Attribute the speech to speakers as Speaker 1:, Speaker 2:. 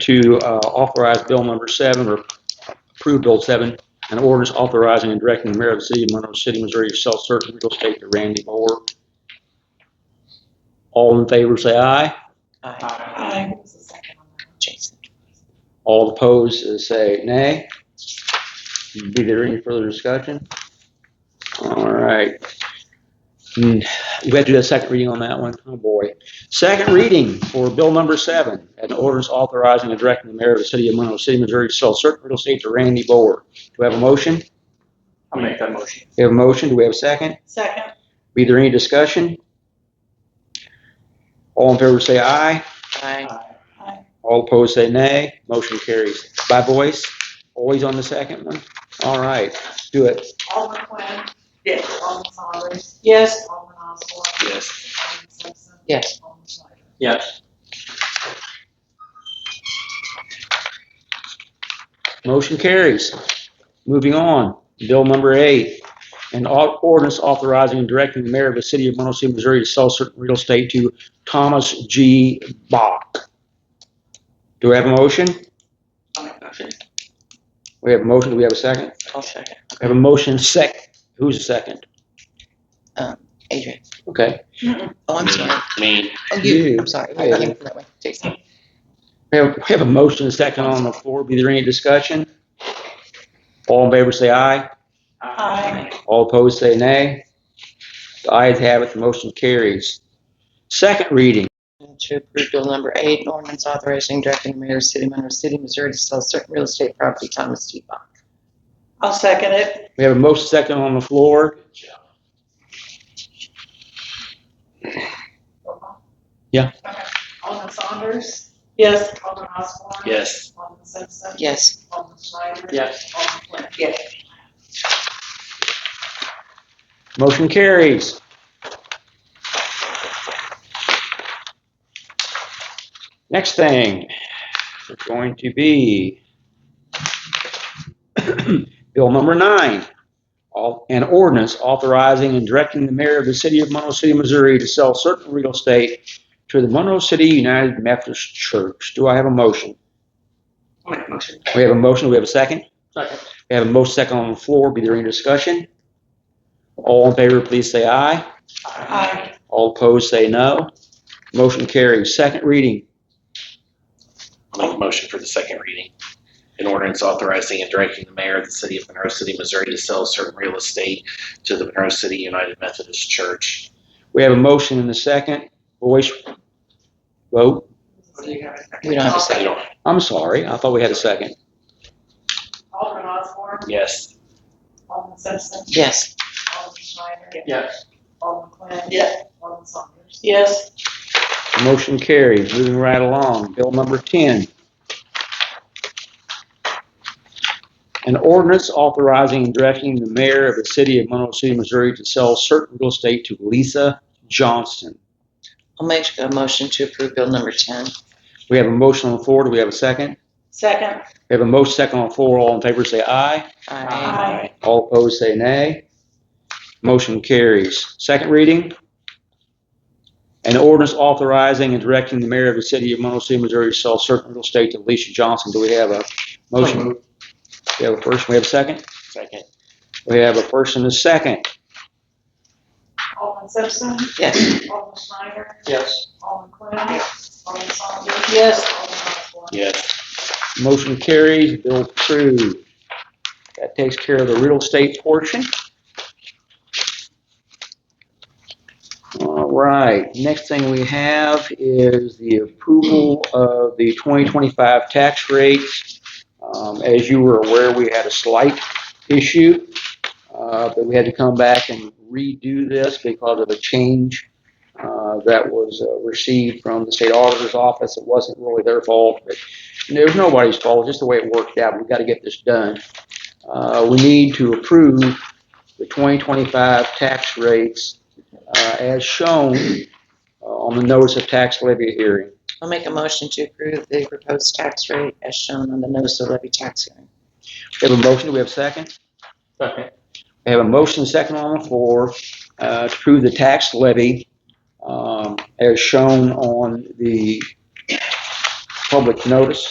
Speaker 1: to uh, authorize bill number seven, or approve bill seven, an ordinance authorizing and directing the mayor of the city of Monroe City, Missouri to sell certain real estate to Randy Moore. All in favor, say aye.
Speaker 2: Aye. Jason.
Speaker 1: All opposed, uh, say nay. Be there any further discussion? All right. Hmm, We have to do a second reading on that one. Oh, boy. Second reading for bill number seven, an ordinance authorizing and directing the mayor of the city of Monroe City, Missouri to sell certain real estate to Randy Boer. Do we have a motion?
Speaker 3: I'll make that motion.
Speaker 1: We have a motion. Do we have a second?
Speaker 2: Second.
Speaker 1: Be there any discussion? All in favor, say aye.
Speaker 4: Aye.
Speaker 2: Aye.
Speaker 1: All opposed say nay. Motion carries. By voice, always on the second one? All right, do it.
Speaker 5: Alderman Quinn.
Speaker 2: Yes.
Speaker 5: Alderman Saunders.
Speaker 2: Yes.
Speaker 5: Alderman Osborne.
Speaker 3: Yes.
Speaker 5: Alderman Simpson.
Speaker 4: Yes.
Speaker 5: Alderman Schleifer.
Speaker 3: Yes.
Speaker 1: Motion carries. Moving on, bill number eight. An au- ordinance authorizing and directing the mayor of the city of Monroe City, Missouri to sell certain real estate to Thomas G. Bach. Do we have a motion?
Speaker 3: I'll make that motion.
Speaker 1: We have a motion. Do we have a second?
Speaker 4: I'll second.
Speaker 1: We have a motion sec. Who's the second?
Speaker 4: Uh, Adrian.
Speaker 1: Okay.
Speaker 4: Oh, I'm sorry.
Speaker 3: Me.
Speaker 4: Oh, you.
Speaker 1: You.
Speaker 4: I'm sorry.
Speaker 1: Hey.
Speaker 4: I came from that way. Jason.
Speaker 1: We have, we have a motion and a second on the floor. Be there any discussion? All in favor, say aye.
Speaker 2: Aye.
Speaker 1: All opposed, say nay. The ayes have it, the motion carries. Second reading,
Speaker 4: To approve bill number eight, an ordinance authorizing and directing the mayor of the city of Monroe City, Missouri to sell certain real estate property to Thomas T. Bach.
Speaker 2: I'll second it.
Speaker 1: we have a motion second on the floor.
Speaker 5: Roll call.
Speaker 1: Yeah.
Speaker 5: Okay. Alderman Saunders.
Speaker 2: Yes.
Speaker 5: Alderman Osborne.
Speaker 3: Yes.
Speaker 5: Alderman Simpson.
Speaker 4: Yes.
Speaker 5: Alderman Schleifer.
Speaker 3: Yes.
Speaker 5: Alderman Quinn.
Speaker 2: Yes.
Speaker 1: Motion carries. Next thing is going to be Bill number nine, all- an ordinance authorizing and directing the mayor of the city of Monroe City, Missouri to sell certain real estate to the Monroe City United Methodist Church. Do I have a motion?
Speaker 3: I'll make the motion.
Speaker 1: We have a motion, we have a second?
Speaker 3: Second.
Speaker 1: We have a motion second on the floor, be there any discussion? All in favor, please say aye.
Speaker 2: Aye.
Speaker 1: All opposed, say no. Motion carries. Second reading.
Speaker 3: I'll make a motion for the second reading. An ordinance authorizing and directing the mayor of the city of Monroe City, Missouri to sell certain real estate to the Monroe City United Methodist Church.
Speaker 1: We have a motion and a second. Voice vote.
Speaker 4: We don't have a
Speaker 3: Say
Speaker 4: second.
Speaker 3: it on.
Speaker 1: I'm sorry. I thought we had a second.
Speaker 5: Alderman Osborne.
Speaker 3: Yes.
Speaker 5: Alderman Simpson.
Speaker 4: Yes.
Speaker 5: Alderman Schleifer.
Speaker 3: Yes.
Speaker 5: Alderman Quinn.
Speaker 2: Yes.
Speaker 5: Alderman Saunders.
Speaker 2: Yes.
Speaker 1: Motion carries. Moving right along. Bill number 10. An ordinance authorizing and directing the mayor of the city of Monroe City, Missouri to sell certain real estate to Lisa Johnston.
Speaker 4: I'll make a motion to approve bill number 10.
Speaker 1: We have a motion on the floor. Do we have a second?
Speaker 2: Second.
Speaker 1: We have a motion second on the floor. All in favor, say aye.
Speaker 4: Aye.
Speaker 2: Aye.
Speaker 1: All opposed, say nay. Motion carries. Second reading. An ordinance authorizing and directing the mayor of the city of Monroe City, Missouri to sell certain real estate to Alicia Johnson. Do we have a motion? We have a first, we have a second?
Speaker 3: Second.
Speaker 1: We have a first and a second.
Speaker 5: Alderman Simpson.
Speaker 4: Yes.
Speaker 5: Alderman Schneider.
Speaker 3: Yes.
Speaker 5: Alderman Quinn. Alderman Saunders.
Speaker 2: Yes.
Speaker 5: Alderman Osborne.
Speaker 3: Yes.
Speaker 1: Motion carries, bill approved. That takes care of the real estate portion. All right, next thing we have is the approval of the 2025 tax rates. Um, As you were aware, we had a slight issue, uh, but we had to come back and redo this because of a change uh, that was uh, received from the state auditor's office. It wasn't really their fault, but and It was nobody's fault, just the way it worked out. We've got to get this done. Uh, we need to approve the 2025 tax rates uh, as shown uh, on the notice of tax levy hearing.
Speaker 4: I'll make a motion to approve the proposed tax rate as shown on the notice of levy tax hearing.
Speaker 1: We have a motion, do we have a second?
Speaker 3: Second.
Speaker 1: We have a motion, second on the floor, uh, to approve the tax levy um, as shown on the public notice.